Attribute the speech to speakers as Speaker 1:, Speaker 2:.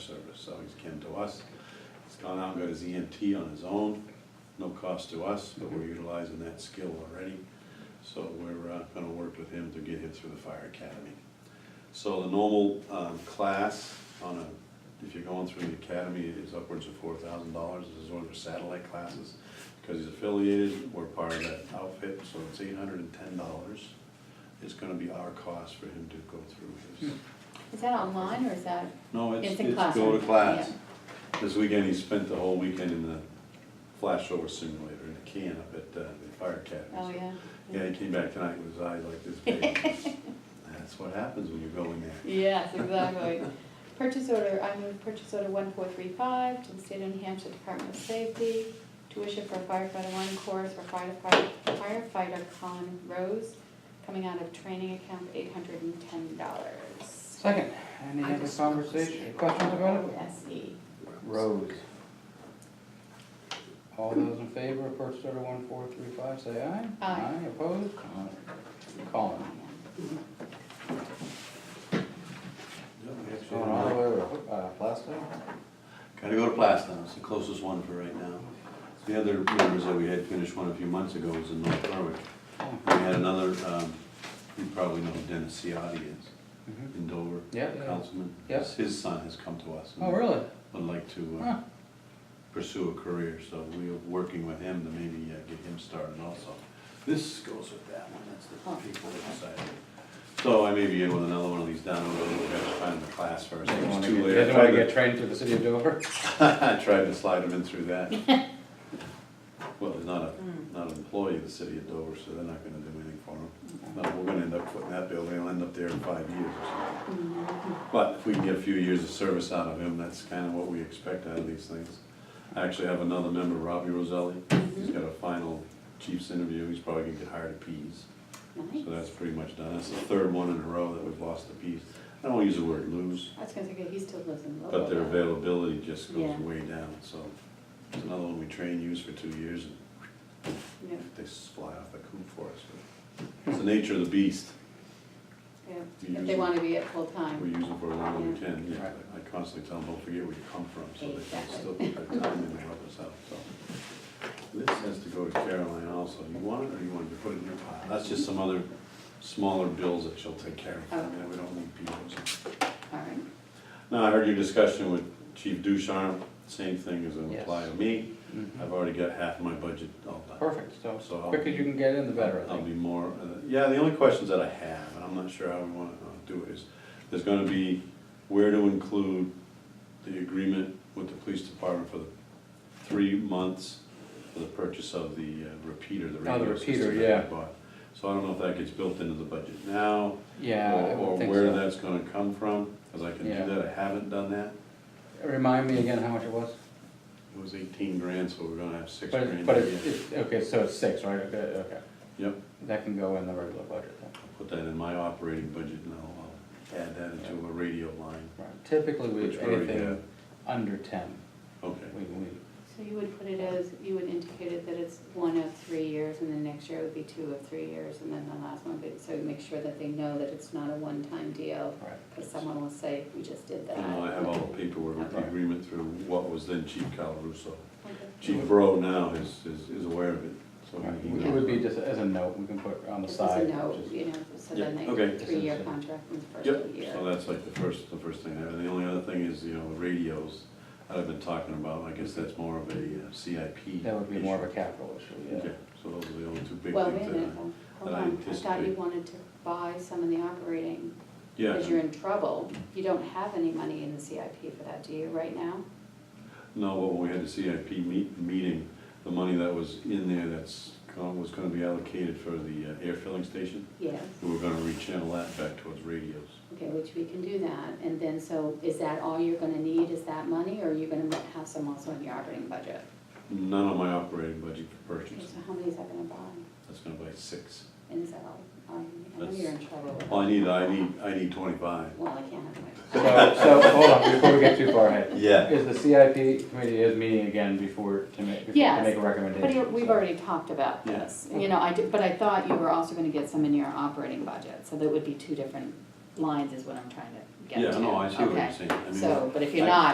Speaker 1: service, so he's kin to us. He's gone out and got his EMT on his own, no cost to us, but we're utilizing that skill already. So we're uh, gonna work with him to get him through the fire academy. So the normal um, class on a, if you're going through the academy, is upwards of four thousand dollars. This is one of their satellite classes. Because he's affiliated, we're part of that outfit, so it's eight hundred and ten dollars. It's gonna be our cost for him to go through his.
Speaker 2: Is that online or is that,
Speaker 1: No, it's,
Speaker 2: It's in
Speaker 1: it's go to
Speaker 2: classroom,
Speaker 1: class. This weekend, he spent the whole weekend in the flashover simulator in a can up at uh, the fire academy.
Speaker 2: oh, yeah?
Speaker 1: Yeah, he came back tonight with his eyes like this big. That's what happens when you're going there.
Speaker 2: Yes, exactly. Purchase order, I move purchase order one four three five to the state of New Hampshire Department of Safety, tuition for firefighter one course for firefighter, firefighter Colin Rose, coming out of training account eight hundred and ten dollars.
Speaker 3: Second, any other conversation, questions about it?
Speaker 2: SE.
Speaker 3: Rose. All those in favor of purchase order one four three five, say aye.
Speaker 2: Aye.
Speaker 3: opposed? Colin.
Speaker 1: Yep, we actually-
Speaker 3: Going all the way over, uh, Plastow?
Speaker 1: Gotta go to Plastown, it's the closest one for right now. The other members that we had finished one a few months ago was in North Berwick.
Speaker 3: Oh,
Speaker 1: We had another, um, you probably know who Dennis Ciotti is,
Speaker 3: mhm.
Speaker 1: in Dover,
Speaker 3: Yeah, yeah.
Speaker 1: councilman.
Speaker 3: Yeah.
Speaker 1: His son has come to us. and
Speaker 3: Oh, really? Oh,
Speaker 1: Would like to uh,
Speaker 3: Huh,
Speaker 1: pursue a career, so we are working with him to maybe uh, get him started also. This goes with that one, that's the people that decided. So I may be able to another one of these down, we'll have to find the class first,
Speaker 3: Doesn't
Speaker 1: it's
Speaker 3: wanna
Speaker 1: too
Speaker 3: get-
Speaker 1: late.
Speaker 3: Doesn't wanna get trained to the city of Dover?
Speaker 1: I tried to slide him in through that. Well, he's not
Speaker 3: Mm.
Speaker 1: a, not an employee of the city of Dover, so they're not gonna do anything for him. No, we're gonna end up putting that building, he'll end up there in five years or something.
Speaker 2: Mm-hmm.
Speaker 1: But if we can get a few years of service out of him, that's kind of what we expect out of these things. I actually have another member, Robbie Roselli, he's got a final chief's interview, he's probably gonna get hired at Pease. So
Speaker 2: Nice.
Speaker 1: that's pretty much done, that's the third one in a row that we've lost to Pease. I don't wanna use the word lose,
Speaker 2: I was gonna say, he still lives in Lowell.
Speaker 1: but their availability just goes
Speaker 2: Yeah.
Speaker 1: way down, so. There's another one we train, use for two years, and
Speaker 2: Yeah,
Speaker 1: they s- fly off the coop for us. but It's the nature of the beast,
Speaker 2: yeah.
Speaker 1: You
Speaker 2: If they
Speaker 1: use-
Speaker 2: wanna be at full
Speaker 1: we
Speaker 2: time.
Speaker 1: use them for as long as we
Speaker 2: Yeah.
Speaker 1: can, yeah,
Speaker 3: Right.
Speaker 1: I constantly tell them, don't forget where you come from, so they can
Speaker 2: Exactly.
Speaker 1: still keep their time and help us out, so. This has to go to Caroline also, you want it or you want to put it in your pile? That's just some other smaller bills that she'll take care of, I mean, we don't need people, so.
Speaker 2: All right.
Speaker 1: Now, I heard your discussion with Chief Ducharme, same thing as it apply to me.
Speaker 3: Mhm.
Speaker 1: I've already got half my budget all done.
Speaker 3: Perfect, so
Speaker 1: So I'll-
Speaker 3: quicker you can get in, the better, I
Speaker 1: I'll
Speaker 3: think.
Speaker 1: be more, uh, yeah, the only questions that I have, and I'm not sure how we want to do it, is there's gonna be where to include the agreement with the police department for the three months for the purchase of the uh, repeater, the
Speaker 3: Oh, the
Speaker 1: radio
Speaker 3: repeater,
Speaker 1: system
Speaker 3: yeah.
Speaker 1: that we bought. So I don't know if that gets built into the budget now,
Speaker 3: Yeah,
Speaker 1: or
Speaker 3: I
Speaker 1: or
Speaker 3: would think
Speaker 1: where
Speaker 3: so.
Speaker 1: that's gonna come from, because I can
Speaker 3: Yeah.
Speaker 1: do that, I haven't done that.
Speaker 3: Remind me again how much it was?
Speaker 1: It was eighteen grand, so we're gonna have six
Speaker 3: But, it-
Speaker 1: grand.
Speaker 3: but
Speaker 1: to
Speaker 3: it-
Speaker 1: get.
Speaker 3: it's, okay, so it's six, right, okay, okay.
Speaker 1: Yep,
Speaker 3: That can go in the regular budget then.
Speaker 1: I'll put that in my operating budget and I'll, I'll add that into a radio line.
Speaker 3: Right. Typically, we,
Speaker 1: Which we already
Speaker 3: anything
Speaker 1: have.
Speaker 3: under ten,
Speaker 1: Okay,
Speaker 3: we, we,
Speaker 2: So you would put it as, you would indicate it that it's one of three years, and then next year it would be two of three years, and then the last one, would be- so you make sure that they know that it's not a one-time deal,
Speaker 3: right.
Speaker 2: because someone will say, we just did that.
Speaker 1: and I have all the paperwork with the
Speaker 2: Okay.
Speaker 1: agreement through what was then Chief Calaruso.
Speaker 2: Okay.
Speaker 1: Chief Bro now is, is, is aware of it, so he
Speaker 3: Mm-hmm. Right. It would
Speaker 1: knows.
Speaker 3: be just as a note, we can put on the
Speaker 2: Just as
Speaker 3: side.
Speaker 2: a note,
Speaker 3: just-
Speaker 2: you know, so then
Speaker 1: Yeah, okay.
Speaker 2: they, three-year contract in the
Speaker 1: Yep,
Speaker 2: first year.
Speaker 1: so that's like the first, the first thing, and the only other thing is, you know, the radios that I've been talking about, I guess that's more of a uh, CIP.
Speaker 3: That would be more of
Speaker 1: issue.
Speaker 3: a capital issue, yeah.
Speaker 1: Okay, so those are the only two big
Speaker 2: Well, wait a
Speaker 1: things that I.
Speaker 2: minute, hold- hold
Speaker 1: that I
Speaker 2: on, I thought you
Speaker 1: anticipate.
Speaker 2: wanted to buy some of the operating,
Speaker 1: Yeah.
Speaker 2: because you're in trouble, you don't have any money in the CIP for that, do you, right now?
Speaker 1: No, but when we had the CIP meet, meeting, the money that was in there that's, gone- was gonna be allocated for the uh, air filling station,
Speaker 2: Yes.
Speaker 1: we were gonna rechannel that back towards radios.
Speaker 2: Okay, which we can do that, and then, so is that all you're gonna need, is that money, or are you gonna have some also in your operating budget?
Speaker 1: None of my operating budget for
Speaker 2: Okay,
Speaker 1: purchase,
Speaker 2: So how many is that gonna buy,
Speaker 1: that's gonna buy six.
Speaker 2: and is that all, um, I know
Speaker 1: That's-
Speaker 2: you're in trouble with.
Speaker 1: Well, I need, I need, I need twenty-five.
Speaker 2: Well, I can't have
Speaker 3: So,
Speaker 2: it.
Speaker 3: so, hold on, before we get too far ahead.
Speaker 1: Yeah.
Speaker 3: Is the CIP committee is meeting again before, to make, before to
Speaker 2: Yes,
Speaker 3: make a
Speaker 2: But you-
Speaker 3: recommendation?
Speaker 2: we've
Speaker 3: so-
Speaker 2: already talked about
Speaker 1: Yeah.
Speaker 2: this, you know, I did, but I thought you were also gonna get some in your operating budget, so there would be two different lines is what I'm trying to get to.
Speaker 1: Yeah, no, I see what you're
Speaker 2: Okay.
Speaker 1: saying. I mean,
Speaker 2: So, but if you're
Speaker 1: I-
Speaker 2: not,